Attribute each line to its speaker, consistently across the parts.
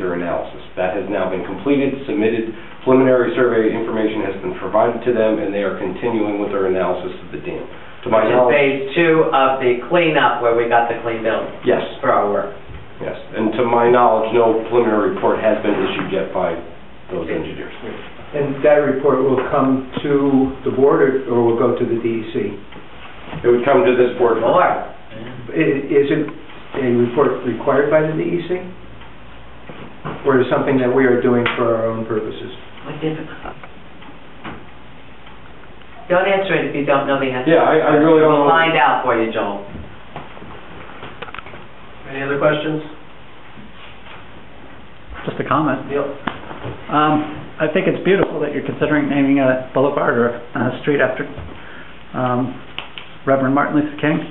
Speaker 1: their analysis. That has now been completed, submitted, preliminary survey information has been provided to them, and they are continuing with their analysis of the dam. To my
Speaker 2: Which is
Speaker 1: knowledge,
Speaker 2: phase two of the cleanup where we got the clean building
Speaker 1: yes,
Speaker 2: for our work.
Speaker 1: yes. And to my knowledge, no preliminary report has been issued yet by those engineers.
Speaker 3: And that report will come to the board or- or will go to the E DEC?
Speaker 1: It would come to this board.
Speaker 2: Or,
Speaker 3: I- Isn't a report required by the DEC? Or is something that we are doing for our own purposes?
Speaker 2: what did- Don't answer it if you don't know the answer.
Speaker 1: Yeah, I- I really don't know.
Speaker 2: We'll find out for you, Joel.
Speaker 4: Any other questions?
Speaker 5: Just a comment.
Speaker 4: Neil?
Speaker 5: Um, I think it's beautiful that you're considering naming a boulevard or a street after um, Reverend Martin Luther King.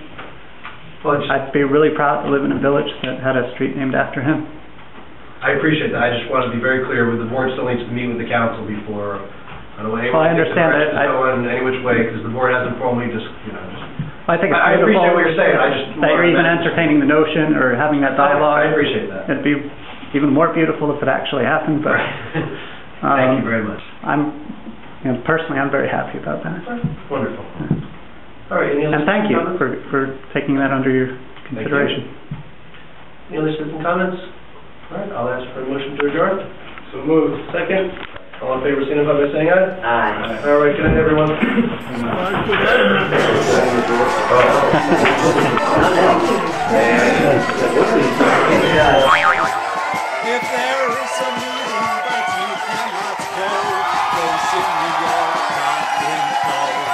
Speaker 4: Well, I
Speaker 5: I'd be really proud to live in a village that had a street named after him.
Speaker 4: I appreciate that. I just want to be very clear, with the board still needs to meet with the council before, I don't want anyone
Speaker 5: Well,
Speaker 4: to
Speaker 5: I
Speaker 4: get the
Speaker 5: understand
Speaker 4: directions
Speaker 5: that. I-
Speaker 4: going any which way, because the board hasn't formally just, you know, just...
Speaker 5: I think it's
Speaker 4: I- I appreciate
Speaker 5: beautiful
Speaker 4: what you're saying. I just
Speaker 5: That you're
Speaker 4: wanted
Speaker 5: even
Speaker 4: that-
Speaker 5: entertaining the notion or having that
Speaker 4: I
Speaker 5: dialogue.
Speaker 4: appreciate that.
Speaker 5: It'd be even more beautiful if it actually happened, but
Speaker 4: Thank you
Speaker 5: um,
Speaker 4: very much.
Speaker 5: I'm, you know, personally, I'm very happy about that.
Speaker 4: Wonderful. All right, any other
Speaker 5: And thank
Speaker 4: citizen
Speaker 5: you
Speaker 4: comments?
Speaker 5: for, for taking that under your
Speaker 4: you.
Speaker 5: consideration.
Speaker 4: Any other citizen comments? All right, I'll ask for a motion to adjourn. So moved. Second. All in favor, signify by saying aye.
Speaker 2: Aye.
Speaker 4: All right, good night, everyone.
Speaker 6: If there is a meeting that you cannot go, those in New York have been called.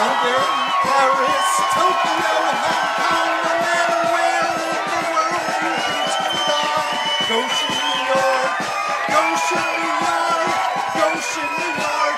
Speaker 6: London, Paris, Tokyo, Hong Kong, no matter where in the world you can turn it on. Goshen, New York, Goshen, New York, Goshen, New York.